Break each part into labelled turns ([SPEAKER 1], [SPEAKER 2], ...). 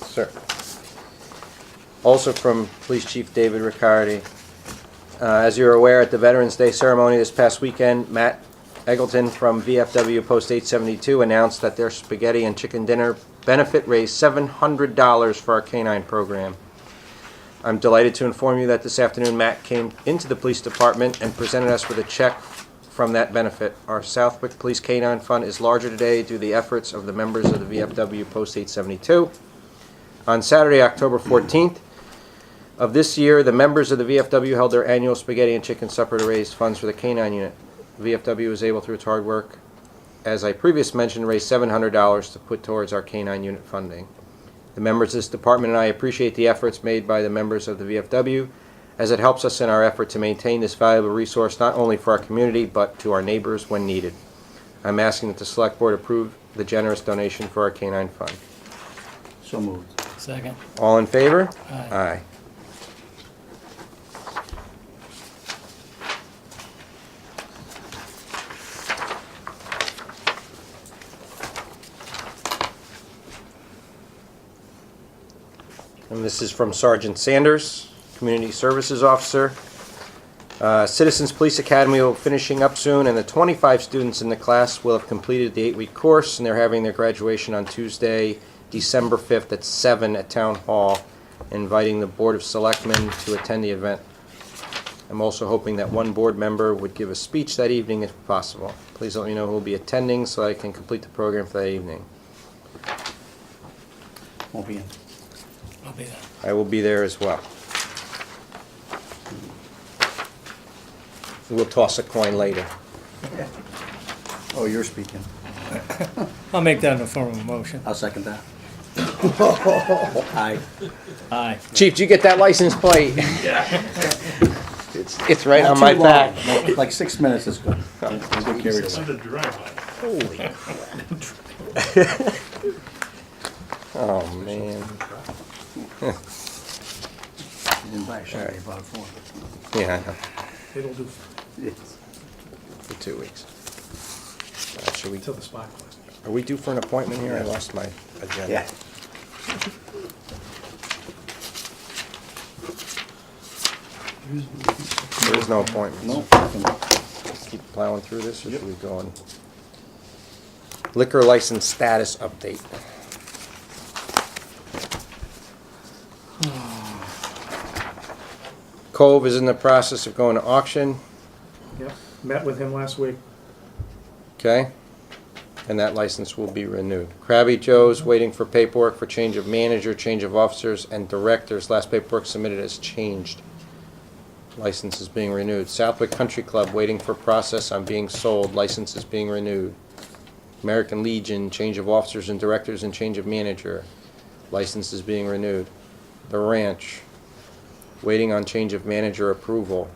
[SPEAKER 1] sir. Also from Police Chief David Riccardi. Uh, As you're aware, at the Veterans Day ceremony this past weekend, Matt Eggleton from VFW Post 872 announced that their spaghetti and chicken dinner benefit raised $700 for our canine program. I'm delighted to inform you that this afternoon Matt came into the police department and presented us with a check from that benefit. Our Southwick Police Canine Fund is larger today due to the efforts of the members of the VFW Post 872. On Saturday, October 14th of this year, the members of the VFW held their annual spaghetti and chicken supper to raise funds for the canine unit. VFW was able, through its hard work, as I previously mentioned, raise $700 to put towards our canine unit funding. The members of this department and I appreciate the efforts made by the members of the VFW as it helps us in our effort to maintain this valuable resource not only for our community but to our neighbors when needed. I'm asking that the Select Board approve the generous donation for our canine fund.
[SPEAKER 2] So moved.
[SPEAKER 3] Second.
[SPEAKER 1] All in favor?
[SPEAKER 3] Aye.
[SPEAKER 1] And this is from Sergeant Sanders, Community Services Officer. Uh, Citizens Police Academy will be finishing up soon, and the 25 students in the class will have completed the eight-week course, and they're having their graduation on Tuesday, December 5th at 7 at Town Hall, inviting the Board of Selectmen to attend the event. I'm also hoping that one board member would give a speech that evening if possible. Please let me know who will be attending so I can complete the program for that evening.
[SPEAKER 2] Won't be in.
[SPEAKER 3] I'll be there.
[SPEAKER 1] I will be there as well. We'll toss a coin later.
[SPEAKER 2] Oh, you're speaking.
[SPEAKER 3] I'll make that in the form of a motion.
[SPEAKER 2] I'll second that. Aye.
[SPEAKER 3] Aye.
[SPEAKER 1] Chief, did you get that license plate? It's, it's right on my
[SPEAKER 2] Not too long.
[SPEAKER 1] back.
[SPEAKER 2] Like- Like six minutes is good.
[SPEAKER 4] Send a drive-by.
[SPEAKER 1] Holy crap. Oh, man.
[SPEAKER 2] You didn't buy a shot, you bought four.
[SPEAKER 1] Yeah, I know,
[SPEAKER 4] It'll do
[SPEAKER 2] Yes.
[SPEAKER 1] for two weeks. Uh, Should we,
[SPEAKER 4] until the spot closes.
[SPEAKER 1] are we due for an appointment here? I lost my agenda.
[SPEAKER 2] Yeah.
[SPEAKER 1] There is no appointment.
[SPEAKER 2] No.
[SPEAKER 1] keep plowing through this, or should we go on? Liquor license status update. Cove is in the process of going to auction,
[SPEAKER 4] Yep, met with him last week.
[SPEAKER 1] okay? And that license will be renewed. Krabby Joe's waiting for paperwork for change of manager, change of officers, and directors. Last paperwork submitted has changed. License is being renewed. Southwick Country Club waiting for process on being sold. License is being renewed. American Legion, change of officers and directors and change of manager. License is being renewed. The Ranch, waiting on change of manager approval.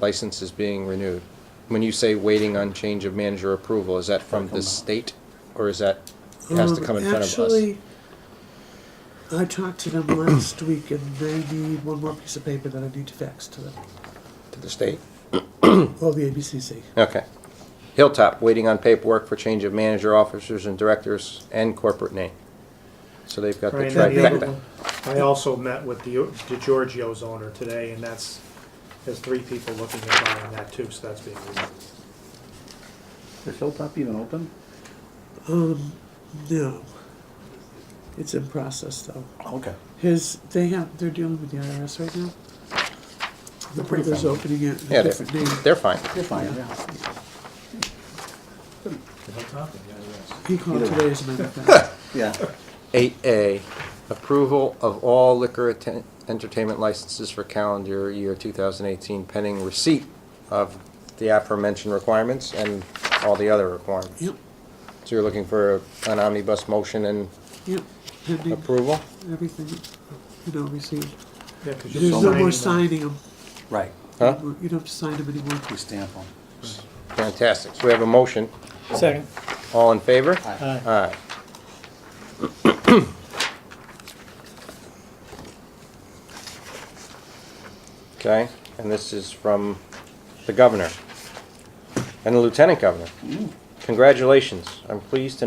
[SPEAKER 1] License is being renewed. When you say waiting on change of manager approval, is that from the state or is that, it has to come in
[SPEAKER 5] Um,
[SPEAKER 1] front of us?
[SPEAKER 5] Actually, I talked to them last week and they need one more piece of paper that I need to fax to them.
[SPEAKER 1] To the state?
[SPEAKER 5] Oh, the ABCC.
[SPEAKER 1] Okay. Hilltop, waiting on paperwork for change of manager, officers and directors and corporate name. So they've got the
[SPEAKER 4] Brian, and the other
[SPEAKER 1] trifecta.
[SPEAKER 4] one, I also met with the DeGiorgio's owner today, and that's, there's three people looking at buying that too, so that's being reviewed.
[SPEAKER 2] Is Hilltop even open?
[SPEAKER 5] Um, no. It's in process though.
[SPEAKER 2] Okay.
[SPEAKER 5] His, they have, they're dealing with the IRS right now. The
[SPEAKER 2] pretty
[SPEAKER 5] brother's
[SPEAKER 2] friendly.
[SPEAKER 5] opening it,
[SPEAKER 1] Yeah, they're,
[SPEAKER 5] a different name.
[SPEAKER 1] they're fine.
[SPEAKER 2] You're fine, yeah.
[SPEAKER 5] He called
[SPEAKER 2] Either way.
[SPEAKER 5] today as a matter of fact.
[SPEAKER 2] Yeah.
[SPEAKER 1] Eight A, approval of all liquor atten- entertainment licenses for calendar year two thousand eighteen pending receipt of the aforementioned requirements and all the other requirements.
[SPEAKER 5] Yep,
[SPEAKER 1] So you're looking for an omnibus motion and
[SPEAKER 5] yep, pending
[SPEAKER 1] approval?
[SPEAKER 5] everything, you know, received.
[SPEAKER 4] Yeah, 'cause you're
[SPEAKER 5] There's no
[SPEAKER 4] signing
[SPEAKER 5] more
[SPEAKER 4] them.
[SPEAKER 5] signing them.
[SPEAKER 2] Right.
[SPEAKER 1] Huh?
[SPEAKER 5] You don't have to sign them anymore.
[SPEAKER 2] We stamp on.
[SPEAKER 1] Fantastic. So we have a motion.
[SPEAKER 3] Second.
[SPEAKER 1] All in favor?
[SPEAKER 3] Aye.
[SPEAKER 1] Aye. Okay, and this is from the governor and the lieutenant governor. Congratulations. I'm pleased to